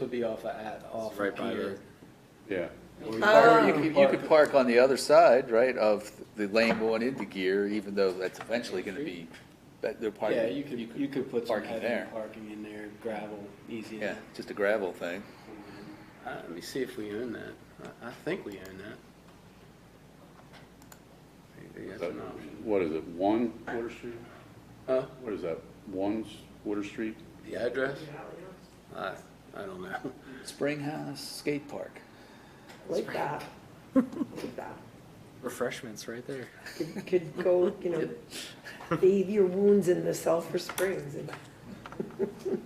would be off of, at, off Right of by here. Yeah. Oh, Or Oh. you could, you could park on the other side, right, of the lane going into gear, even though that's eventually gonna be, that they're parking. Yeah, you could, you could put some parking heavy there. parking in there, gravel, easy. Yeah, enough. just a gravel thing. Uh, Let me see if we own that. I, I think we own that. Maybe that's That- an option. What is it, one Water Street? Huh? What is that, one s- Water Street? The address? I, I don't know. Spring House Skate Park. Like that. Like that. Refreshments right there. Could, could go, you know, bathe your wounds in the sulfur springs and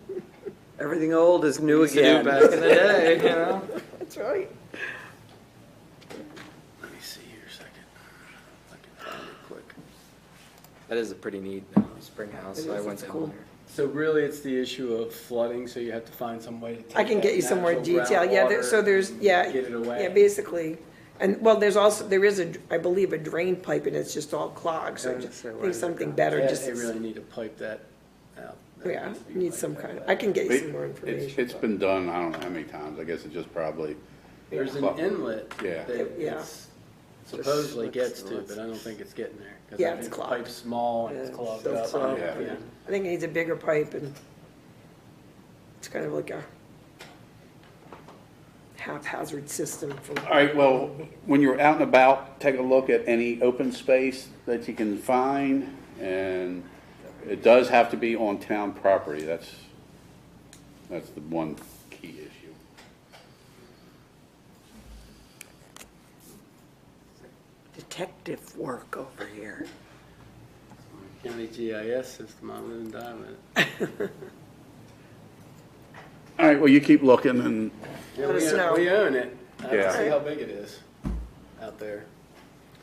Everything old is new again. Back in the day, you know? That's right. Let me see here a second. If I can find it quick. That is a pretty neat uh, spring house. It I is, went it's down cool. there. So really, it's the issue of flooding, so you have to find some way to take. I can get that you some more natural detail, yeah, there- so groundwater there's, and yeah. Get it Yeah, away. basically, and, well, there's also, there is a, I believe, a drain pipe and it's just all clogged, so I just think something better, Yeah, just, They really need to pipe that out. That yeah, needs to be need piped some out. kind of, I can get you some more It's- information. It's been done, I don't know how many times, I guess it just probably, There's an Well, inlet yeah. that it's supposedly gets to, but I don't think it's getting there. 'cause I Yeah, it's think the clogged. Pipe's small and it's Yeah, clogged so up. clogged, Yeah. Yeah. I think it needs a bigger pipe and it's kind of like a haphazard system for, all right, well, when you're out and about, take a look at any open space that you can find, and it does have to be on town property, that's, that's the one key issue. Detective work over here. County GIS system, E I live and die with it. All right, well, you keep looking, and Yeah, Let we us own- know. We own it. I have to Yeah. see how big it is out there.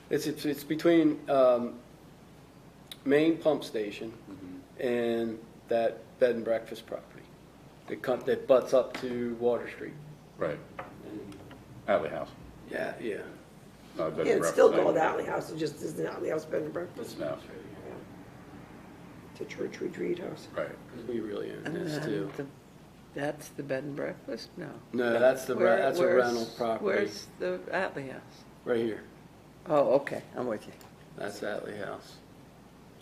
It's, it's, it's between, um, main pump station Mm-hmm. and that bed and breakfast property. That cut, that butts up to Water Street. Right. Alley House. Yeah, yeah. No, I better yeah, it's still represent. called Alley House, it just isn't Alley House Bed and Breakfast, No, it's a church retreat house. right. We really own Uh, this too. That's the bed and breakfast? No. No, that's the, re- Where- that's a where's- rental property, Where's the Atley House? right here. Oh, okay, I'm with you. That's Atley House.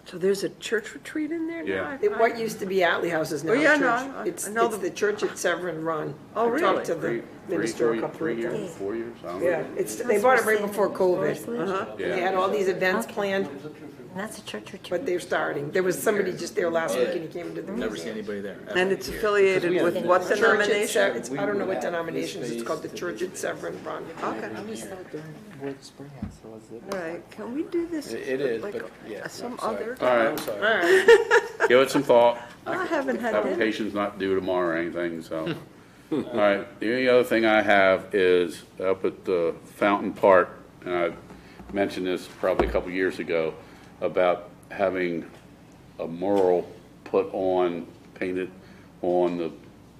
So there's a church retreat in there Yeah. now? It- What used to be Alley House is now Oh, a yeah, church. no, I- I It's, know it's the- the church at Severn Run. Oh, I talked really? to Three, the three, minister a four, couple three of times. years, four years, I don't Yeah, know. it's, they bought it right before COVID. Uh-huh. And They had all these events planned, That's a church retreat. but they're starting. There was somebody just there last week and he came to the Never see meeting. anybody there. ever. And it's affiliated with what Church at Sev- denomination? it's- I don't know what denomination, it's called the Church at Severn Run. Okay, spring house was it? all right, can we do this? It- it is, like, but yeah, Some I'm sorry. other, All I'm right, sorry. Alright, give it some thought. I haven't had dinner. Application's not due tomorrow or anything, so. All right, the only other thing I have is up at the Fountain Park, and I mentioned this probably a couple years ago, about having a mural put on, painted on the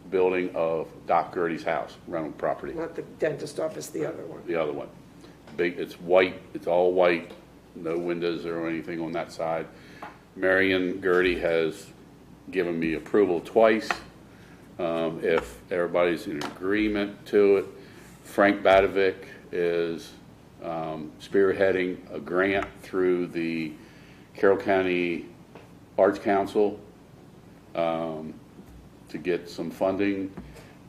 building of Doc Gertie's house, rental property. not the dentist office, the other one. the other one. Big, it's white, it's all white, no windows or anything on that side. Marion Gertie has given me approval twice. Um, if everybody's in agreement to it, Frank Badavick is, um, spearheading a grant through the Carroll County Arts Council to get some funding.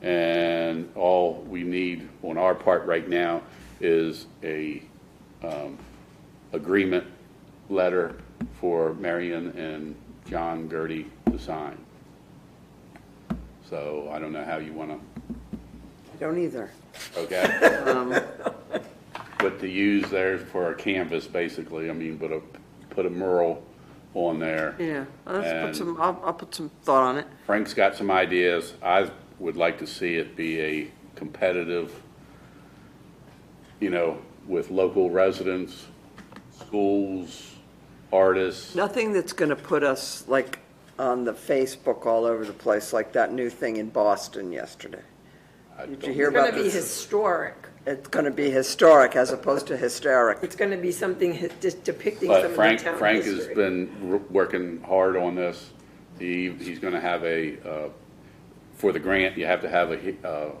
And all we need on our part right now is a um, agreement letter for Marion and John Gertie to sign. So I don't know how you want I don't either. to, okay? But to use theirs for a canvas, basically, I mean, but a, put a mural on there. Yeah, let's And- put some, I'll, I'll put some thought on it. Frank's got some ideas. I would like to see it be a competitive, you know, with local residents, schools, artists. Nothing that's going to put us like on the Facebook all over the place, like that new thing in Boston yesterday. I Did you don't- hear It's gonna about be this? historic. It's going to be historic as opposed to hysteric. It's gonna be something hi- just depicting some But of the town Frank, Frank has history. been r- working hard on this. He, he's gonna have a, uh, for the grant, you have to have a, he- uh,